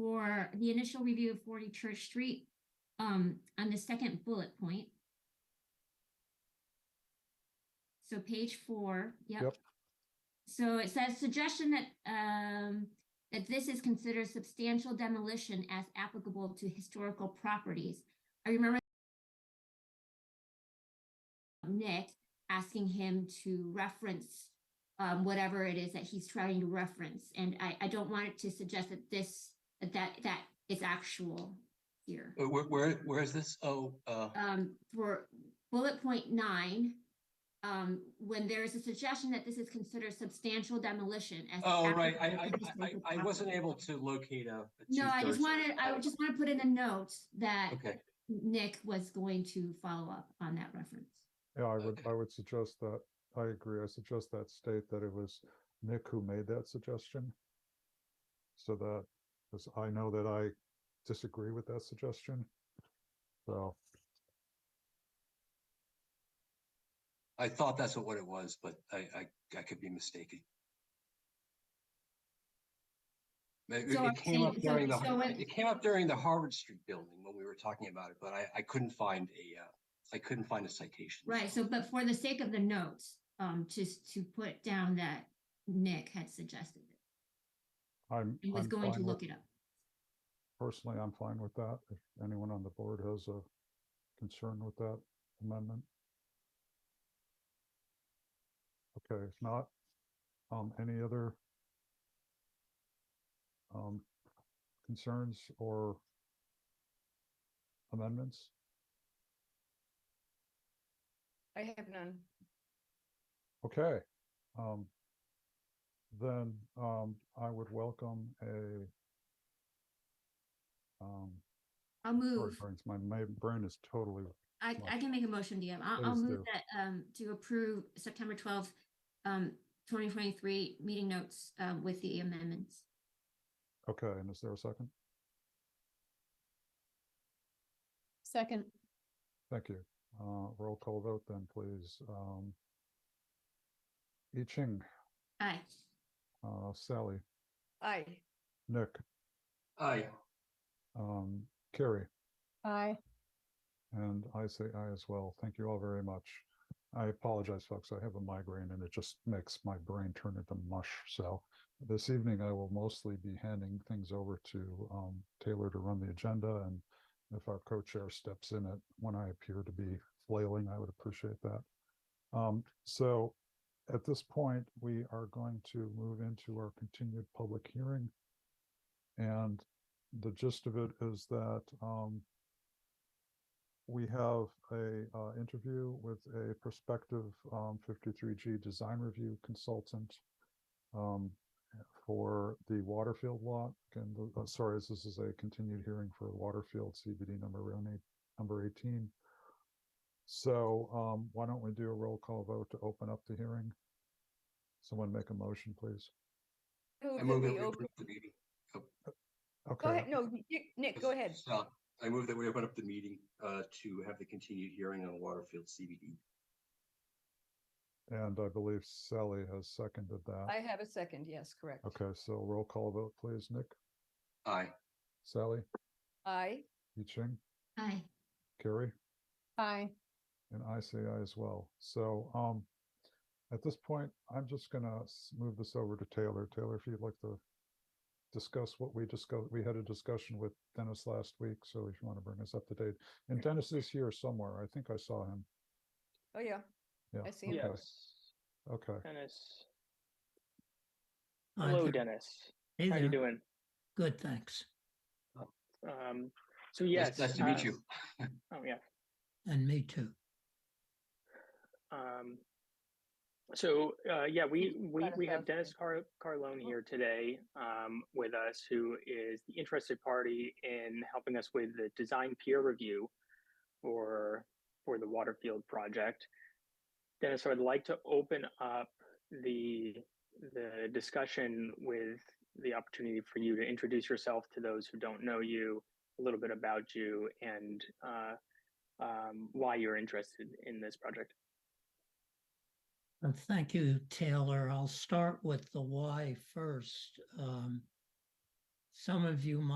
for the initial review of forty Church Street, um, on the second bullet point. So page four, yep. Yep. So it says suggestion that, um, that this is considered substantial demolition as applicable to historical properties. I remember Nick asking him to reference um, whatever it is that he's trying to reference. And I, I don't want it to suggest that this, that that- that is actual here. Uh, Where, where, where is this? Oh, uh, Um, for bullet point nine, um, when there is a suggestion that this is considered substantial demolition as. oh, right, I, I, applicable to I, historical I I wasn't property. able to locate a. a No, I just two-thirds. wanted, I would just want to put in a note that Okay, Nick was going to follow up on that reference. Yeah, I would, Okay. I would suggest that, I agree, I suggest that state that it was Nick who made that suggestion. So that, because I know that I disagree with that suggestion. So, I thought that's what it was, but I, I, I could be mistaken. Ma- It So I'm it came saying- up so- during the, so it- it came up during the Harvard Street building when we were talking about it, but I, I couldn't find a, uh, I couldn't find a citation. Right, so, but for the sake of the notes, um, just to put down that Nick had suggested it. I'm. He was I'm going to fine with- look it up. Personally, I'm fine with that. If anyone on the board has a concern with that amendment. Okay, if not, um, any other um, concerns or amendments? I have none. Okay. Um, then, um, I would welcome a um, I'll sorry, move, brains- my, my brain is totally I, I can make a motion, DM. I'll, I'll Please move do. that, um, to approve September twelfth, um, twenty twenty-three meeting notes, uh, with the amendments. Okay, and is there a second? Second, Thank you. Uh, roll call vote then, please. Um. I Ching, Aye. uh, Sally, aye. Nick, Aye, um, Carrie, Aye. and I say I as well. Thank you all very much. I apologize, folks. I have a migraine and it just makes my brain turn into mush. So this evening I will mostly be handing things over to, um, Taylor to run the agenda and if our co-chair steps in it when I appear to be flailing, I would appreciate that. Um, so at this point, we are going to move into our continued public hearing. And the gist of it is that, um, we have a, uh, interview with a prospective, um, fifty-three G design review consultant um, for the Waterfield lot. And the, uh, sorry, this is a continued hearing for Waterfield CBD number one eight, number eighteen. So, um, why don't we do a roll call vote to open up the hearing? Someone make a motion, please. I move that that we we open- approve the meeting. Go Okay, ahead, no, Nick- Nick, go ahead. So, I move that we open up the meeting, uh, to have the continued hearing on Waterfield CBD. and I believe Sally has seconded I that. have a second, yes, correct. Okay, so roll call vote, please. Nick, Aye, Sally, Aye. Yiching, Aye. Carrie? Aye. And I say I as well. So, um, at this point, I'm just gonna s- move this over to Taylor. Taylor, if you'd like to discuss what we discussed, we had a discussion with Dennis last week, so if you want to bring us up to date. And Dennis is here somewhere. I think I saw him. Oh, yeah. Yeah. I see him. okay, Yes, Okay, Dennis. Hi Hello, there. Dennis. Hey How you there. doing? Good, thanks. Um, so Nice- yes. nice to meet uh, you. Oh, yeah. And me too. Um, so, uh, yeah, we, we, Got a we have thousand. Dennis Car- Carlone here today, um, with us, who is the interested party in helping us with the design peer review for, for the Waterfield project. Dennis, I'd like to open up the, the discussion with the opportunity for you to introduce yourself to those who don't know you, a little bit about you and, uh, um, why you're interested in this project. Uh, Thank you, Taylor. I'll start with the why first. Um, Some of you might